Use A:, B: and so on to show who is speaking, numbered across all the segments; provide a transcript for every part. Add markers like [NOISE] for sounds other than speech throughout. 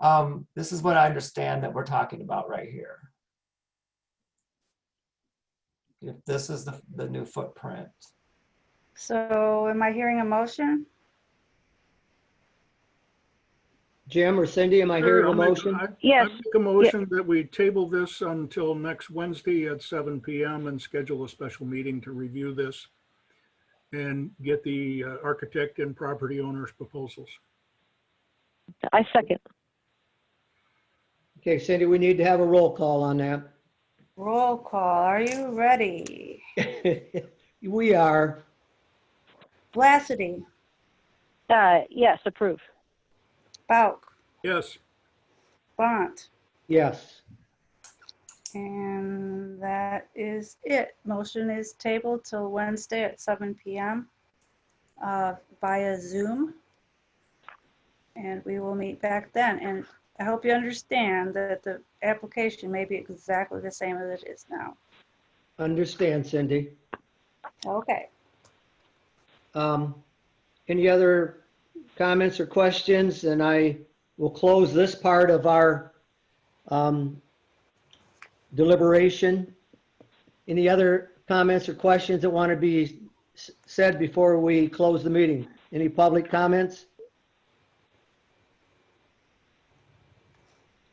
A: Um, this is what I understand that we're talking about right here. If this is the, the new footprint,
B: So am I hearing a motion?
C: Jim or Cindy, am I hearing a
D: I'll make-
C: motion?
D: I- I
B: Yes,
D: make a motion that we table this until next Wednesday at seven PM and schedule a special meeting to review this and get the uh, architect and property owner's proposals.
E: I second.
C: Okay, Cindy, we need to have a roll call on
B: roll call. Are you ready?
C: that. [LAUGHS] We are,
B: Blasity,
E: Uh, yes, approve.
B: Bauk,
D: Yes,
B: Bont,
C: yes.
B: and that is it. Motion is tabled till Wednesday at seven PM uh, via Zoom. And we will meet back then. And I hope you understand that the application may be exactly the same as it is now.
C: Understand, Cindy.
B: Okay.
C: Um, Any other comments or questions? And I will close this part of our um, deliberation. Any other comments or questions that want to be s- said before we close the meeting? Any public comments?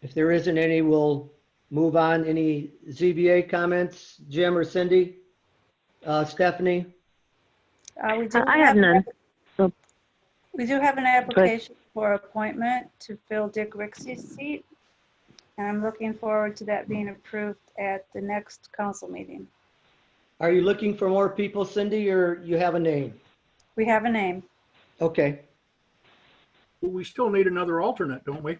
C: If there isn't any, we'll move on. Any ZBA comments, Jim or Cindy? Uh, Stephanie?
B: Uh, we do
E: I have none. So-
B: We do have an application for appointment to fill Dick Rixey's seat. And I'm looking forward to that being approved at the next council meeting.
C: Are you looking for more people, Cindy, or you have a name?
B: We have a name.
C: Okay,
D: we still need another alternate, don't we?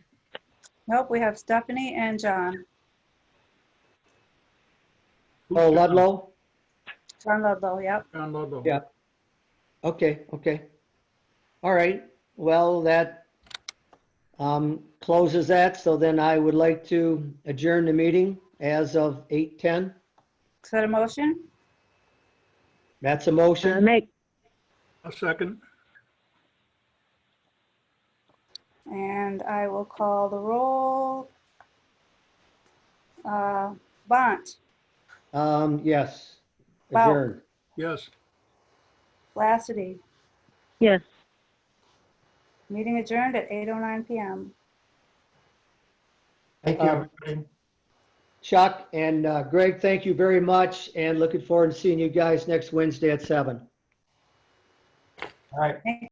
B: Nope, we have Stephanie and John,
C: oh, Ludlow?
B: John Ludlow, yep.
D: John Ludlow.
C: Yeah. Okay, okay. All right, well, that um, closes that, so then I would like to adjourn the meeting as of 8:10.
B: Is that a motion?
C: That's a
E: Uh,
C: motion.
E: make,
D: A second.
B: And I will call the roll. Uh, Bont,
C: Um, Yes.
B: Wow.
C: Adjourn.
D: Yes,
B: Lassity,
E: yes.
B: meeting adjourned at 8:09 PM.
A: thank you,
C: Um,
A: everybody.
C: Chuck and uh, Greg, thank you very much, and looking forward to seeing you guys next Wednesday at seven.
A: All right.